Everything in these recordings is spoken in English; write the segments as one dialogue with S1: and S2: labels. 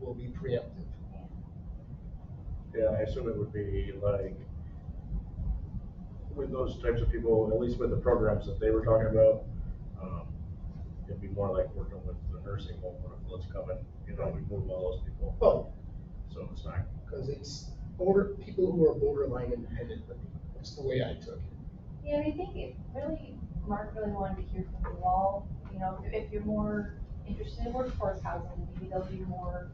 S1: will be preemptive.
S2: Yeah, I assume it would be like, with those types of people, at least with the programs that they were talking about, um, it'd be more like working with the nursing home or if it's coming, you know, we move all those people.
S1: Well,
S2: So it's not,
S1: because it's border, people who are borderline independent living, that's the way I took it.
S3: Yeah, I mean, I think it really, Mark really wanted to hear from you all, you know, if- if you're more interested in workforce housing, maybe there'll be more,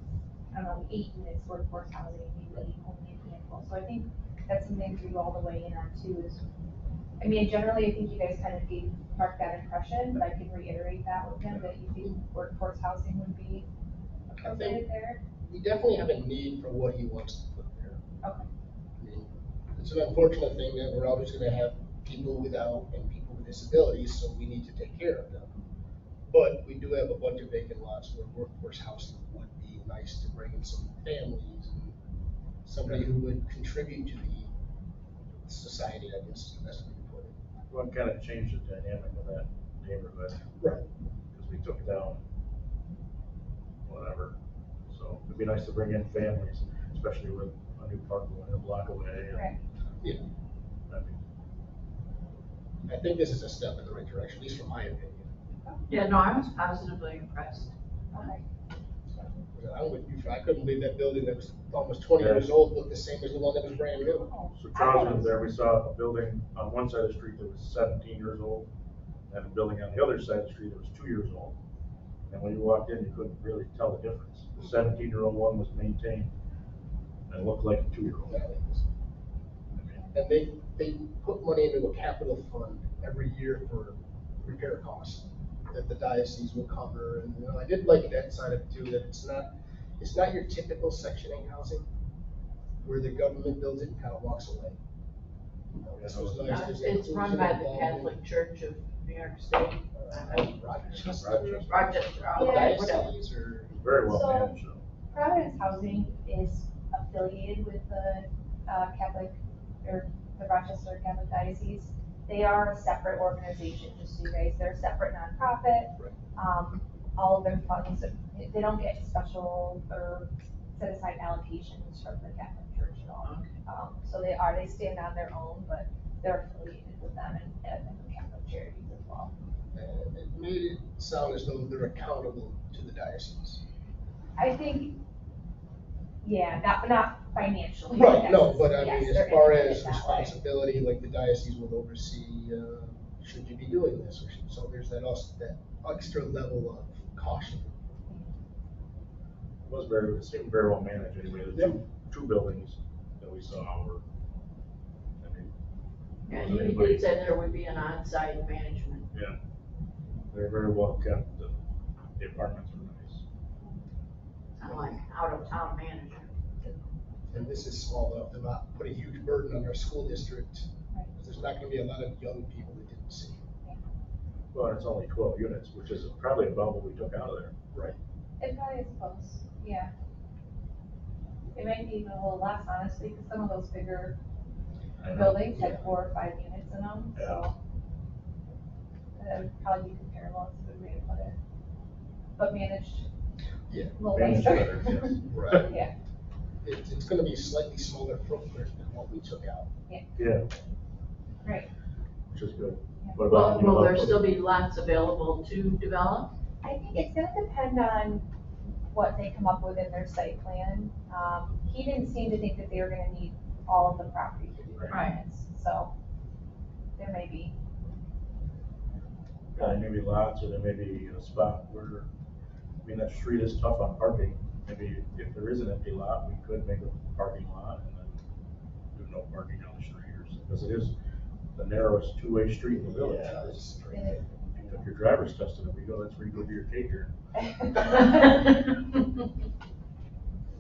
S3: I don't know, eight units workforce housing, maybe only a handful. So I think that's something to all the way in on too is, I mean, generally, I think you guys kind of gave Mark that impression, but I can reiterate that with him, that you think workforce housing would be appropriate there.
S1: We definitely have a need for what he wants to put there.
S3: Okay.
S1: I mean, It's an unfortunate thing that we're always gonna have people without and people with disabilities, so we need to take care of them. But we do have a bunch of vacant lots where workforce housing would be nice to bring in some families and somebody who would contribute to the society, I guess, is the best way to put it.
S2: well, it kind of changed the dynamic of that neighborhood,
S1: Right.
S2: because we took down whatever. So it'd be nice to bring in families, especially with a new park going a block away. and-
S3: Right.
S1: Yeah.
S2: I mean,
S1: I think this is a step in the right direction, at least from my opinion.
S4: Yeah, no, I was positively impressed.
S3: Okay.
S1: I'm with you, I couldn't believe that building that was almost twenty years old looked the same as the one that was brand new.
S3: Oh,
S2: So
S3: I thought
S2: Charles
S3: it
S2: was
S3: was-
S2: there, we saw a building on one side of the street that was seventeen years old, and a building on the other side of the street that was two years old. And when you walked in, you couldn't really tell the difference. The seventeen-year-old one was maintained and looked like a two-year-old.
S1: And they, they put money into a capital fund every year for repair costs that the diocese will cover. And, you know, I did like that side of it too, that it's not, it's not your typical section eight housing where the government builds it and kind of walks away. You know, This was nice.
S4: Uh,
S1: There's
S4: It's run by the
S1: inclusion
S4: Catholic Church of New York State,
S1: involved. Uh, Rochester.
S2: Rochester.
S4: Rochester,
S1: uh,
S4: all
S3: Yeah,
S4: that,
S3: it's-
S4: whatever.
S1: Diocese or,
S2: Very well
S3: So-
S2: managed, so.
S3: Providence Housing is affiliated with the uh, Catholic, or the Rochester Catholic Diocese. They are a separate organization, just so you guys, they're a separate nonprofit.
S1: Right.
S3: Um, all of their funds, they don't get special or set aside allocations from the Catholic Church at all.
S4: Okay.
S3: Um, so they are, they stand on their own, but they're affiliated with them and, and the Catholic charities as well.
S1: uh, it made it sound as though they're accountable to the diocese.
S3: I think, yeah, not, not financially.
S1: Right, no,
S3: necessarily.
S1: but I
S3: Yes,
S1: mean,
S3: they're
S1: as far
S3: independent
S1: as
S3: that way.
S1: responsibility, like the diocese will oversee, uh, should you be doing this? or should- So there's that also, that extra level of caution.
S2: It was very, it seemed very well managed anyway. The two, two buildings that we saw were, I mean,
S4: And he did say there would be an on-site management.
S2: yeah, they're very well kept. The the apartments were nice.
S4: I'm like out-of-town manager.
S1: And this is small enough to not put a huge burden on our school district.
S3: Right.
S1: There's not gonna be a lot of young people that didn't see.
S2: Well, it's only twelve units, which is probably about what we took out of there.
S1: Right.
S3: It probably is close, yeah. It might be even a little less honestly, because some of those bigger
S2: I know.
S3: buildings
S1: Yeah.
S3: had four or five units in them, so. That would probably be comparable, it's a good way to put it. But managed.
S1: Yeah.
S3: A little
S2: Managed
S3: nicer.
S2: better,
S1: Right.
S3: Yeah,
S1: It's, it's gonna be slightly smaller footprint than what we took out.
S2: Yeah,
S3: right.
S2: which is good.
S3: Yeah.
S2: What about
S4: Will,
S2: you,
S4: will there
S2: Buffalo?
S4: still be lots available to develop?
S3: I think it's gonna depend on what they come up with in their site plan. Um, he didn't seem to think that they were gonna need all of the property to do their
S4: Right.
S3: units, so. There may be
S2: Yeah, there may be lots, or there may be a spot where, I mean, that street is tough on parking. Maybe if there is an empty lot, we could make a parking lot and then do no parking on the street or something, because it is the narrowest two-way street in the village.
S1: Yeah, it's pretty
S3: It
S1: big.
S2: If you took your driver's test and we go, that's where you go to your caterer.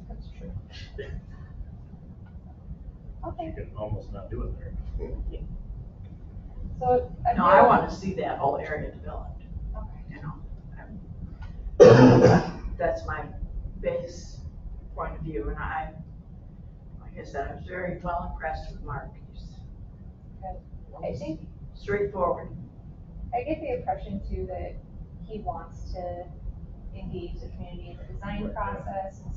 S3: That's true. Okay,
S2: You can almost not do it there.
S3: so.
S4: No, I wanna see that whole area developed,
S3: Okay.
S4: you know? I'm- That's my base point of view, and I, like I said, I was very well impressed with Mark. He's
S3: I think,
S4: straightforward.
S3: I get the impression too that he wants to engage the community in the design process and